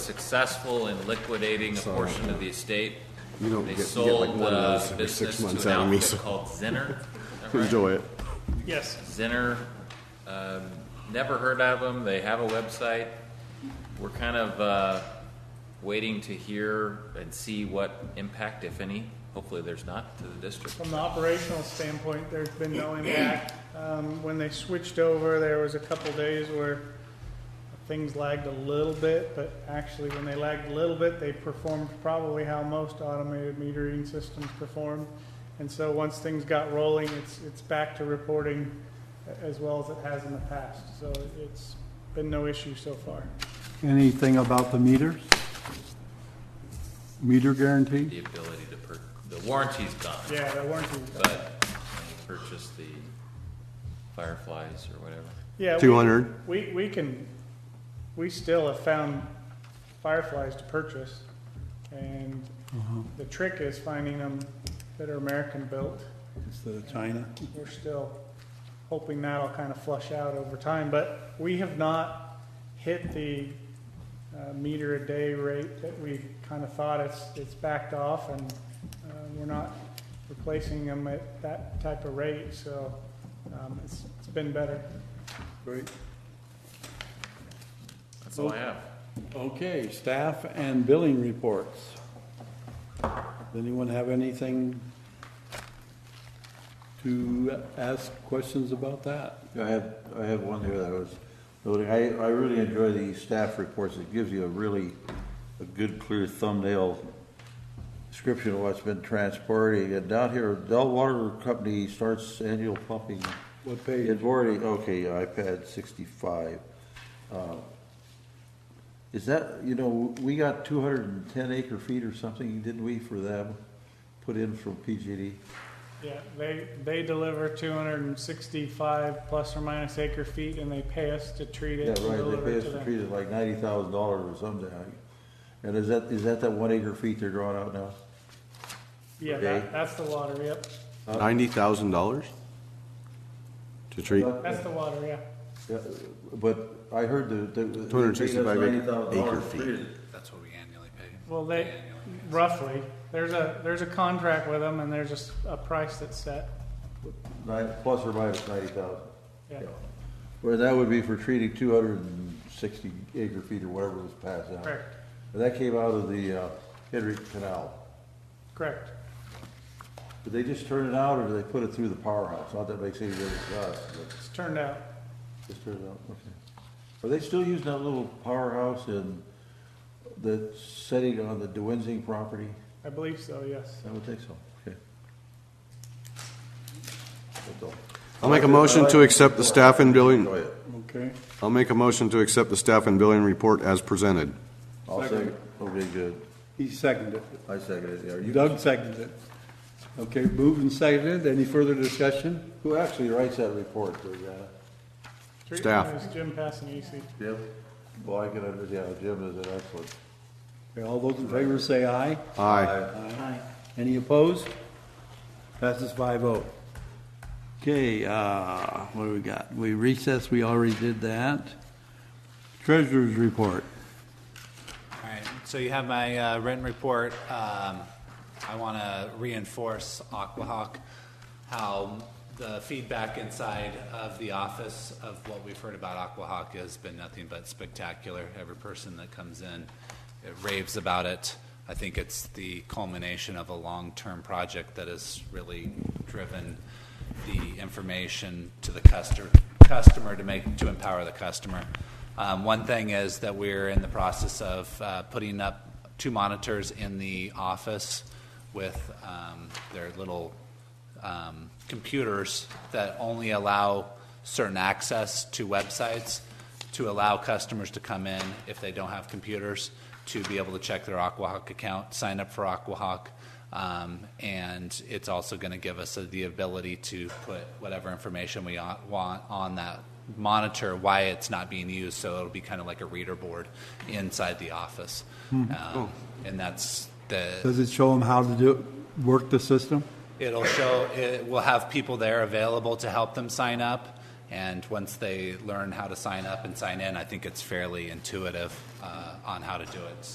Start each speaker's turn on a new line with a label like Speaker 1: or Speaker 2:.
Speaker 1: successful in liquidating a
Speaker 2: So,
Speaker 1: portion of the estate.
Speaker 2: You don't
Speaker 1: They
Speaker 2: get- you get like
Speaker 1: sold uh,
Speaker 2: one of
Speaker 1: the
Speaker 2: those every six
Speaker 1: business
Speaker 2: months
Speaker 1: to an
Speaker 2: out of me,
Speaker 1: outfit
Speaker 2: so-
Speaker 1: Called Zinner. Is that right?
Speaker 2: Enjoy it.
Speaker 3: Yes.
Speaker 1: Zinner, um, never heard of them. They have a website. We're kind of uh, waiting to hear and see what impact, if any, hopefully there's not, to the district.
Speaker 3: From the operational standpoint, there's been no impact. Um, When they switched over, there was a couple days where things lagged a little bit, but actually, when they lagged a little bit, they performed probably how most automated meter reading systems perform. And so, once things got rolling, it's, it's back to reporting a- as well as it has in the past. So it's been no issue so far.
Speaker 4: Anything about the meters? Meter guarantee?
Speaker 1: The ability to, per- the warranty's gone.
Speaker 3: Yeah, the warranty.
Speaker 1: But when you purchase the Fireflies or whatever.
Speaker 3: Yeah, we-
Speaker 2: 200.
Speaker 3: We, we can, we still have found fireflies to purchase, and the trick is finding them that are American-built.
Speaker 4: Instead of China?
Speaker 3: We're still hoping that'll kind of flush out over time, but we have not hit the uh, meter a day rate that we kind of thought it's, it's backed off, and uh, we're not replacing them at that type of rate, so um, it's, it's been better.
Speaker 4: Great.
Speaker 1: That's all I have.
Speaker 4: Okay, staff and billing reports. Does Anyone have anything to ask questions about that?
Speaker 5: I have, I have one here that I was noting. I, I really enjoy the staff reports. It gives you a really, a good clear thumbnail description of what's been transporting. And down here, Del Water Company starts annual pumping.
Speaker 4: What page?
Speaker 5: It's already, okay, iPad sixty-five. Uh, Is that, you know, we got two hundred and ten acre feet or something, didn't we, for them? Put in from PGD?
Speaker 3: Yeah, they, they deliver two hundred and sixty-five plus or minus acre feet and they pay us to treat
Speaker 5: Yeah,
Speaker 3: it and
Speaker 5: right,
Speaker 3: deliver
Speaker 5: they
Speaker 3: it
Speaker 5: pay us
Speaker 3: to
Speaker 5: to
Speaker 3: them.
Speaker 5: treat it like ninety thousand dollars or something. And is that, is that that one acre feet they're drawing out now?
Speaker 3: Yeah,
Speaker 5: Okay.
Speaker 3: that, that's the water, yep.
Speaker 2: $90,000 to treat?
Speaker 3: That's the water, yeah.
Speaker 5: Yeah, But I heard the. the-
Speaker 2: 265
Speaker 5: they paid us $90,000
Speaker 2: acre
Speaker 5: to
Speaker 2: feet.
Speaker 5: treat it.
Speaker 6: That's what we annually pay.
Speaker 3: Well, they, roughly, there's a, there's a contract with them and there's a s- a, price that's set.
Speaker 5: Nine, plus or minus ninety thousand.
Speaker 3: Yeah.
Speaker 5: Where that would be for treating two hundred and sixty acre feet or whatever was passed out.
Speaker 3: Correct,
Speaker 5: And that came out of the, uh, Henry Canal.
Speaker 3: correct.
Speaker 5: Did they just turn it out or did they put it through the powerhouse? Not that makes any difference to us, but.
Speaker 3: It's turned out.
Speaker 5: Just turn it up, okay. Are they still using that little powerhouse in the setting on the Dewinsing property?
Speaker 3: I believe so, yes.
Speaker 5: I would think so, okay. That's all.
Speaker 2: I'll make a motion to accept the staff and
Speaker 5: Go
Speaker 2: billing,
Speaker 5: ahead.
Speaker 4: Okay.
Speaker 2: I'll make a motion to accept the staff and billing report as presented.
Speaker 5: I'll
Speaker 4: Second.
Speaker 5: second, okay, good.
Speaker 4: He seconded
Speaker 5: I second it, yeah.
Speaker 4: it.
Speaker 5: You-
Speaker 4: Doug seconded it. Okay, moved and seconded. Any further discussion?
Speaker 5: Who actually writes that report, Georgiana?
Speaker 3: Three-
Speaker 2: Staff.
Speaker 3: it was Jim E Passanese.
Speaker 5: Jim? Well, I can understand, yeah, Jim is an excellent.
Speaker 4: Okay, all those in favor say aye.
Speaker 2: Aye.
Speaker 4: Aye. Any opposed? Passes 5-0. Okay, uh, what do we got? We recessed, we already did that. Treasurer's report.
Speaker 6: All right, so you have my uh, written report. Um, I want to reinforce Aquahawk, how the feedback inside of the office of what we've heard about Aquahawk has been nothing but spectacular. Every person that comes in it raves about it. I think it's the culmination of a long-term project that has really driven the information to the customer, customer to make, to empower the customer. Um, one thing is that we're in the process of uh, putting up two monitors in the office with um, their little um, computers that only allow certain access to websites to allow customers to come in if they don't have computers to be able to check their Aquahawk account, sign up for Aquahawk. Um, and it's also going to give us the ability to put whatever information we o- want on that monitor why it's not being used so it'll be kind of like a reader board inside the office um, and that's the
Speaker 4: Does it show them how to do, work the system?
Speaker 6: It'll show, it will have people there available to help them sign up And once they learn how to sign up and sign in, I think it's fairly intuitive uh, on how to do it.